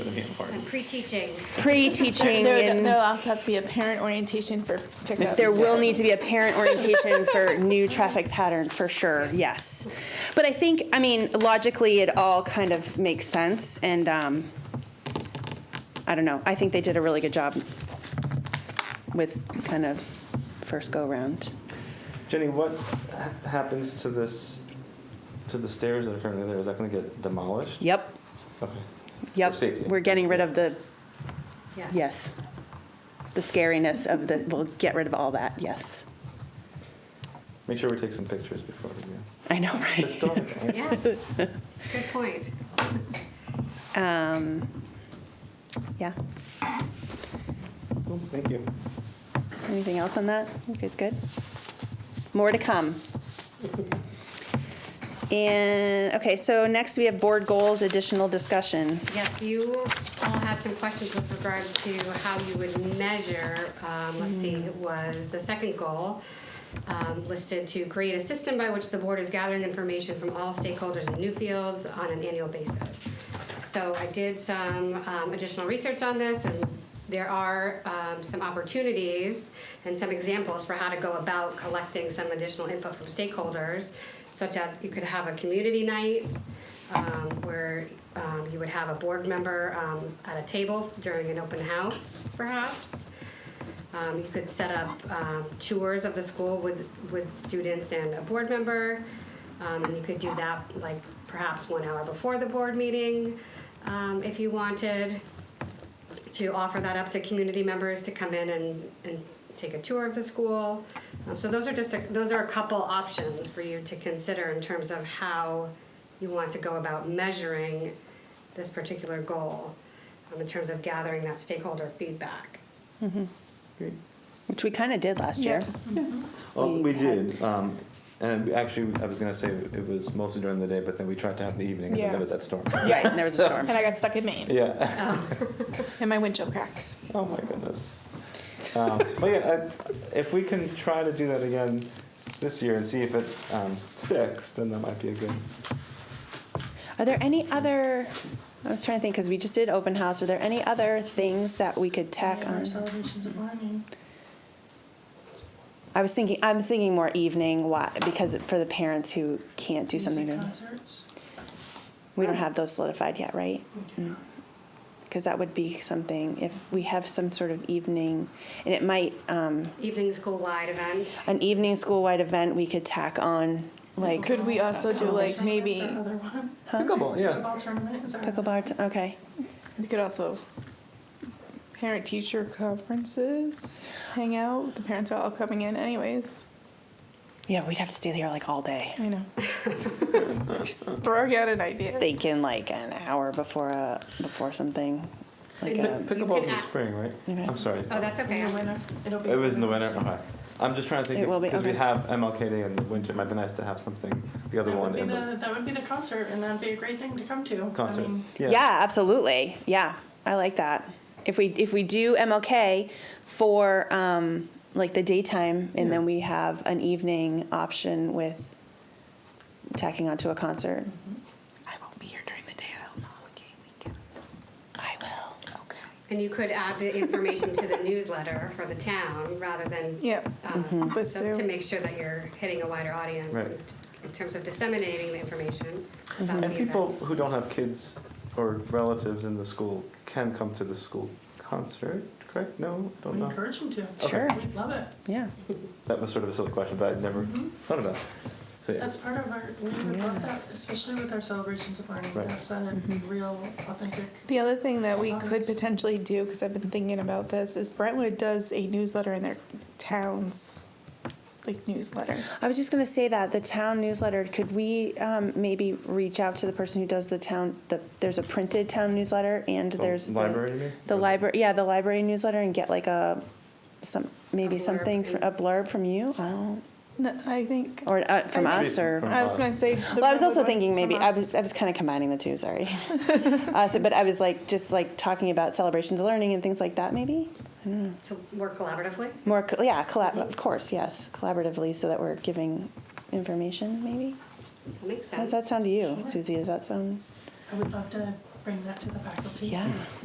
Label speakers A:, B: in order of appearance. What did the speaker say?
A: Pre-teaching.
B: pre-teaching
C: There
B: and
C: will also have to be a parent orientation for pickup.
B: there will need to be a parent orientation for new traffic pattern for sure yes but i think i mean logically it all kind of makes sense and um, i don't know i think they did a really good job with kind of first go round
D: Jenny, what ha- happens to this, to the stairs that are currently there? Is that going to get demolished?
B: yep
D: Okay.
B: yep
D: For safety.
B: we're getting rid of the
A: Yes.
B: yes the scariness of the we'll get rid of all that yes
D: Make sure we take some pictures before we go.
B: i know right
D: Historic.
A: Yes. Good point.
B: um, yeah
D: Cool, Thank you.
B: Anything else on that? You guys good? More to come. And, okay, so next we have board goals, additional discussion.
A: Yes, you all have some questions with regards to how you would measure, um, let's see, it was the second goal um, listed to create a system by which the board is gathering information from all stakeholders in new fields on an annual basis. So I did some um, additional research on this, and there are um, some opportunities and some examples for how to go about collecting some additional input from stakeholders, such as you could have a community night um, where um, you would have a board member um, at a table during an open house, perhaps. Um, you could set up um, tours of the school with, with students and a board member. Um, and you could do that like perhaps one hour before the board meeting um, if you wanted to offer that up to community members to come in and, and take a tour of the school. Um, so those are just a, those are a couple options for you to consider in terms of how you want to go about measuring this particular goal um, in terms of gathering that stakeholder feedback.
D: Great.
B: Which we kind of did last year.
D: Well,
B: We
D: Oh, we
B: had-
D: did, um, and we actually, I was gonna say it was mostly during the day, but then we tried to have the evening, and then
C: Yeah.
D: there was that storm.
B: Right, and there was a storm.
C: And I got stuck in Maine,
D: Yeah.
C: and my windshield cracked.
D: Oh my goodness. Um, but yeah, I, if we can try to do that again this year and see if it um, sticks, then that might be a good.
B: Are there any other, I was trying to think, because we just did open house, are there any other things that we could tack on?
E: Celebrations of learning.
B: I was thinking, I'm thinking more evening, why, because for the parents who can't do something.
E: Music
B: during-
E: Concerts.
B: We don't have those solidified yet, right? Because that would be something, if we have some sort of evening, and it might, um,
A: Evening school wide event.
B: an evening school-wide event we could tack on, like
C: Could we also do like maybe,
E: That's another one.
D: Pickleball, yeah.
E: Pickleball tournament is our.
B: pickleball, t- okay.
C: we could also parent teacher conferences, hang out, the parents are all coming in anyways.
B: Yeah, we'd have to stay there like all day.
C: I know. Just throwing out an idea.
B: Thinking like an hour before a, before something. Like
A: Yeah.
B: a,
A: You
D: Pickleball's
A: can
D: in
A: act-
D: spring, right? I'm sorry.
A: Oh, that's okay.
E: In the winter. It'll be.
D: It was in the winter. Okay. I'm just trying to think
B: It will be,
D: because we
B: okay.
D: have MLK Day in the winter. It might be nice to have something. The other
E: That would
D: one
E: be
D: in
E: the,
D: the
E: that would be the concert, and that'd be a great thing to come to. I
D: concert.
E: mean,
D: yeah.
B: yeah, absolutely. Yeah, I like that. If we, if we do MLK for, um, like the daytime and then
D: Yeah.
B: we have an evening option with tacking onto a concert.
C: I won't be here during the day, I'll not okay weekend.
B: I will.
C: Okay.
A: And you could add the information to the newsletter for the town rather than.
C: Yeah.
A: um,
C: But
A: so To
C: so-
A: make sure that you're hitting a wider audience.
D: Mm-hmm. Right.
A: in- In terms of disseminating the information about the
D: And people
A: event.
D: who don't have kids or relatives in the school can come to the school concert, correct? No, don't
E: We
D: know.
E: encourage them to.
D: Oh, Okay. Sure.
E: We'd love it. Mm-hmm.
B: Yeah.
D: That was sort of a silly question, but I'd never thought about. it. So yeah.
E: That's part of our, we would love that, especially with our celebrations of learning.
D: Right.
E: That's a real, authentic.
C: The other thing that we
E: Um,
C: could potentially do, because I've been thinking about this, is Brentwood does a newsletter in their town's like newsletter.
B: I was just going to say that the town newsletter. Could we um, maybe reach out to the person who does the town? The there's a printed town newsletter and
D: The
B: there's the-
D: library, you mean?
B: The
D: Or-
B: library, yeah, the library newsletter, and get like a some maybe
A: A blurb.
B: something fr- a blurb from you. I don't
C: No, I think.
B: or uh, from
C: I
B: us or.
D: From
C: I was
D: us.
C: going to say. the
B: Well, I was
C: Brentwood
B: also
C: one
B: thinking
C: is from
B: maybe I
C: us.
B: was, I was kind of combining the two. Sorry, uh, so, but I was like just like talking about celebrations of learning and things like that. Maybe
A: To work collaboratively.
B: more, co- yeah, collab- of course, yes, collaboratively, so that we're giving information. Maybe
A: That makes
B: how does
A: sense.
B: that sound to you,
E: Sure.
B: Susie? Does that sound?
E: I would love to bring that to the faculty.
B: Yeah,